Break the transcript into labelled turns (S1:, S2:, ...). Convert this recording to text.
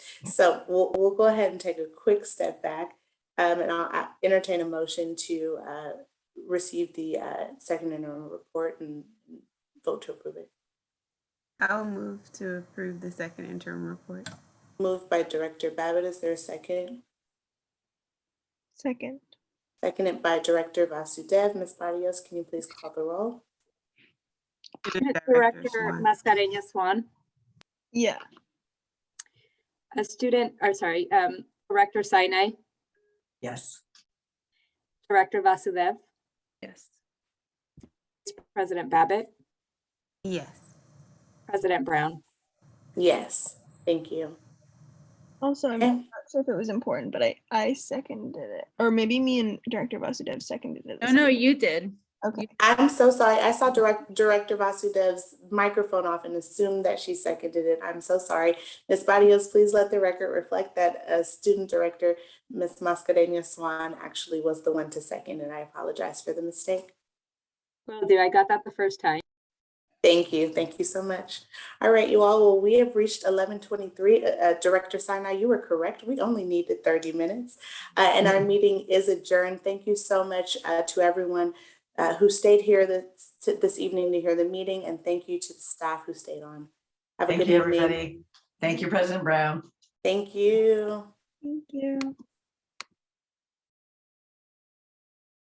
S1: So we'll, we'll go ahead and take a quick step back, um, and I'll uh, entertain a motion to, uh, receive the, uh, second interim report and vote to approve it.
S2: I'll move to approve the second interim report.
S1: Moved by Director Babbitt, is there a second?
S3: Second.
S1: Seconded by Director Vasudev, Ms. Barrios, can you please call the roll?
S4: Director Mascareñas Swan,
S3: Yeah.
S4: a student, or sorry, um, Director Sinai,
S5: Yes.
S4: Director Vasudev,
S3: Yes.
S4: President Babbitt,
S2: Yes.
S4: President Brown.
S1: Yes, thank you.
S3: Also, I'm
S1: Okay.
S3: not sure if it was important, but I I seconded it, or maybe me and Director Vasudev seconded it. at the
S6: No,
S3: same-
S6: no, you did.
S3: Okay.
S1: I'm so sorry, I saw Direct, Director Vasudev's microphone off and assumed that she seconded it, I'm so sorry. Ms. Barrios, please let the record reflect that, uh, Student Director, Ms. Mascarenhas Swan actually was the one to second, and I apologize for the mistake.
S4: Will do, I got that the first time.
S1: Thank you, thank you so much. All right, you all, well, we have reached eleven twenty-three. Uh, Director Sinai, you were correct. We only needed thirty minutes. Uh, and
S5: Mm-hmm.
S1: our meeting is adjourned. Thank you so much, uh, to everyone, uh, who stayed here this, to- this evening to hear the meeting, and thank you to the staff who stayed on. Have a
S5: Thank
S1: good
S5: you,
S1: evening.
S5: everybody. Thank you, President Brown.
S1: Thank you.
S3: Thank you.